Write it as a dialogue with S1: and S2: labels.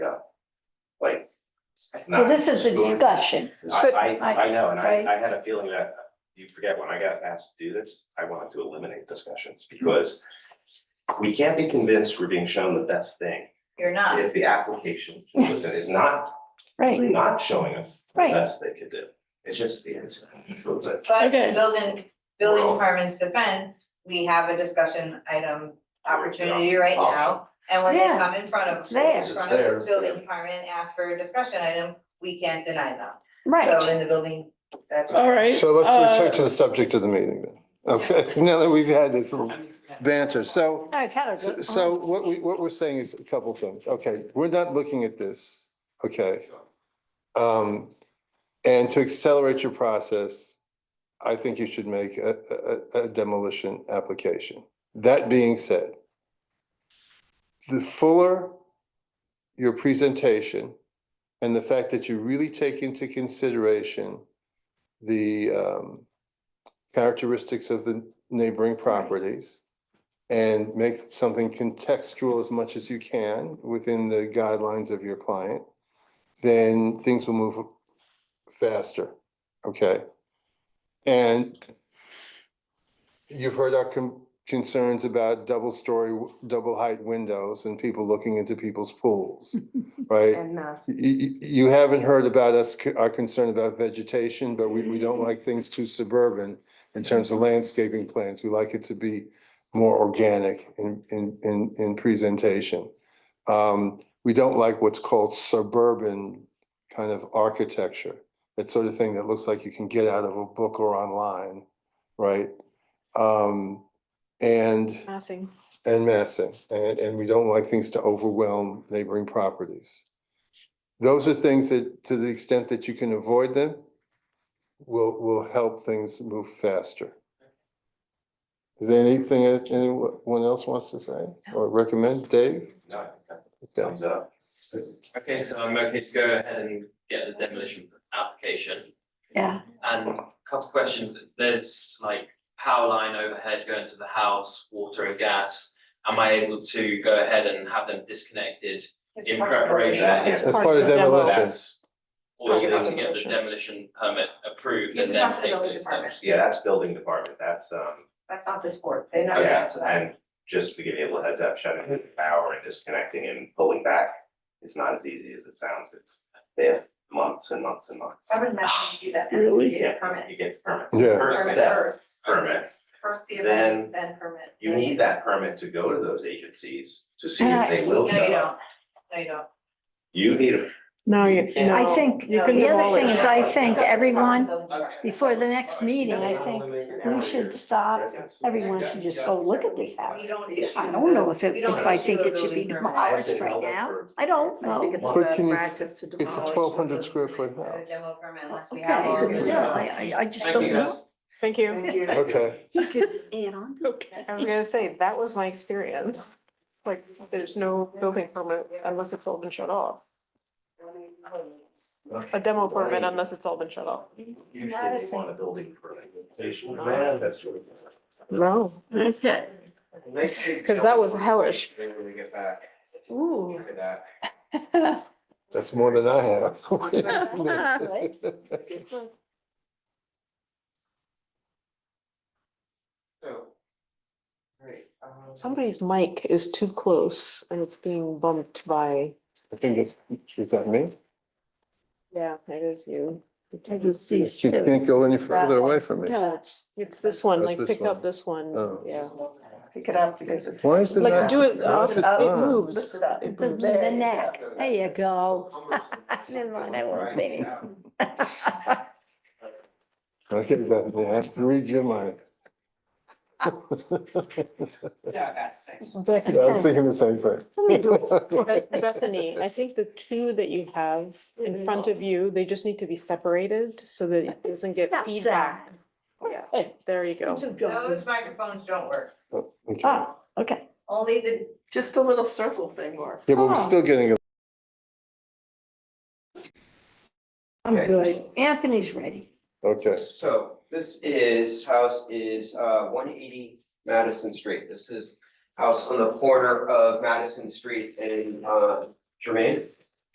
S1: like. it's
S2: Well,
S1: not
S2: this is a
S1: spoon-
S2: discussion.
S1: I, I, I know, and I,
S2: Right.
S1: I had a feeling that, you forget, when I got asked to do this, I wanted to eliminate discussions, because we can't be convinced we're being shown the best thing
S3: You're not.
S1: if the application, listen, is not,
S2: Right,
S1: not showing us the
S2: Right.
S1: best they could do. It's just, it's, it's a little bit.
S3: But
S2: Okay.
S3: building, building
S1: Well-
S3: department's defense, we have a discussion item opportunity right
S1: Option.
S3: now. And when they
S2: Yeah.
S3: come in front of,
S2: It's there.
S3: in
S1: It's
S3: front
S1: there,
S3: of the
S1: it's there.
S3: building department, and ask for a discussion item, we can't deny them. So
S2: right.
S3: in the building, that's.
S2: All right.
S4: So let's
S2: uh,
S4: return to the subject of the meeting then. Okay, now that we've had this little banter. So,
S2: I've had a good.
S4: so what we, what we're saying is a couple things. Okay, we're not looking at this, okay? Um, and to accelerate your process, I think you should make a, a- a, a demolition application. That being said, the fuller your presentation and the fact that you really take into consideration the um characteristics of the neighboring properties and make something contextual as much as you can within the guidelines of your client, then things will move faster, okay? And you've heard our con- concerns about double-story, w- double-height windows and people looking into people's pools, right?
S5: And mass.
S4: Y- y- You haven't heard about us, c- our concern about vegetation, but we, we don't like things too suburban in terms of landscaping plans. We like it to be more organic in, in, in, in presentation. Um, We don't like what's called suburban kind of architecture. That sort of thing that looks like you can get out of a book or online, right? Um, And
S5: Massing.
S4: and massing, and, and we don't like things to overwhelm neighboring properties. Those are things that, to the extent that you can avoid them, will, will help things move faster. Is there anything that anyone else wants to say or recommend? Dave?
S1: No, I think that
S4: Okay.
S1: thumbs up.
S6: Okay, so I'm okay to go ahead and get the demolition application.
S2: Yeah,
S6: And a couple of questions, there's like power line overhead going to the house, water and gas. Am I able to go ahead and have them disconnected in
S1: That,
S6: preparation?
S1: yeah.
S4: That's part of demolition.
S1: That's,
S6: Or you have to get the demolition permit approved and then take those steps?
S1: yeah, that's building department, that's, um,
S3: That's not this board. They know
S1: yeah,
S3: that.
S1: and just to give you a little heads up, shutting the power and disconnecting and pulling back, it's not as easy as it sounds, it's, they have months and months and months.
S3: I would imagine you do that.
S2: Really?
S3: You get a
S1: Yeah,
S3: permit.
S1: you get the permit.
S4: Yeah.
S1: First
S3: Permit
S1: step,
S3: first,
S1: permit,
S3: first see
S1: Then-
S3: then, then permit.
S1: you need that permit to go to those agencies to see
S2: Yeah.
S1: if they will
S3: No, you
S1: show
S3: don't.
S1: up.
S3: No, you don't.
S1: You need a
S5: No, you, no.
S2: I think,
S5: You
S3: No,
S5: can
S2: the
S5: have all
S2: other thing
S5: that.
S2: is, I
S3: It's
S2: think
S3: up to
S2: everyone,
S3: the building.
S2: before the next meeting, I think we should stop. Everyone should just go look at this house.
S3: We don't issue.
S2: I don't know if it,
S3: we don't
S2: if I
S3: issue
S2: think
S3: a
S2: it should be
S3: building permit.
S2: demolished right now. I don't
S5: I think
S2: know.
S5: it's
S4: But
S5: bad
S4: can you s-
S5: practice to
S4: It's a
S5: demolish.
S4: twelve hundred square foot
S3: A
S4: house.
S3: demo permit unless we have.
S2: Okay,
S3: all
S2: but
S3: the-
S2: still, I, I, I just
S6: Thank
S2: don't
S6: you guys.
S2: know.
S5: Thank you.
S3: Thank you.
S4: Okay,
S2: He could add on.
S5: I was gonna say, that was my experience. It's like, there's no building permit unless it's all been shut off. A demo permit unless it's all been shut off.
S1: Usually
S2: Not a
S1: they want a
S2: thing.
S1: building permit. They should have that sort of thing.
S5: No.
S2: Okay.
S1: And they say-
S5: 'Cause that was hellish.
S1: They really get back,
S2: Ooh.
S1: look at that.
S4: that's more than I have.
S1: So. Great. um,
S5: Somebody's mic is too close and it's being bumped by,
S4: I think it's, is that me?
S5: yeah, it is you.
S2: It's these
S4: She
S2: two.
S4: can't go any further away from me.
S5: No, it's, it's this one,
S4: That's
S5: like
S4: this
S5: pick
S4: one.
S5: up this one,
S4: Oh.
S5: yeah.
S7: Pick it up because it's.
S4: Why is it
S5: Like
S4: not-
S5: do it,
S4: why is
S5: up-
S4: it
S5: it
S4: on?
S5: moves. It
S2: The,
S5: moves.
S2: the neck, there you go. Never mind, I won't say anything.
S4: Okay, that, I have to read your mind.
S7: Yeah, that's six.
S4: Yeah, I was thinking the same
S5: Beth-
S4: thing.
S5: Bethany, I think the two that you have in front of you, they just need to be separated so that it doesn't get
S2: Not
S5: feedback. Yeah,
S2: Hey.
S5: there you go.
S2: Two
S3: Those
S2: dogs.
S3: microphones don't work.
S4: Okay. Yeah,
S2: Oh, okay.
S3: Only the
S7: Just the little circle thing works.
S4: but we're still getting, a-
S2: I'm good. Anthony's ready.
S4: okay.
S8: So this is, house is uh one eighty Madison Street. This is house on the corner of Madison Street and uh Jermaine.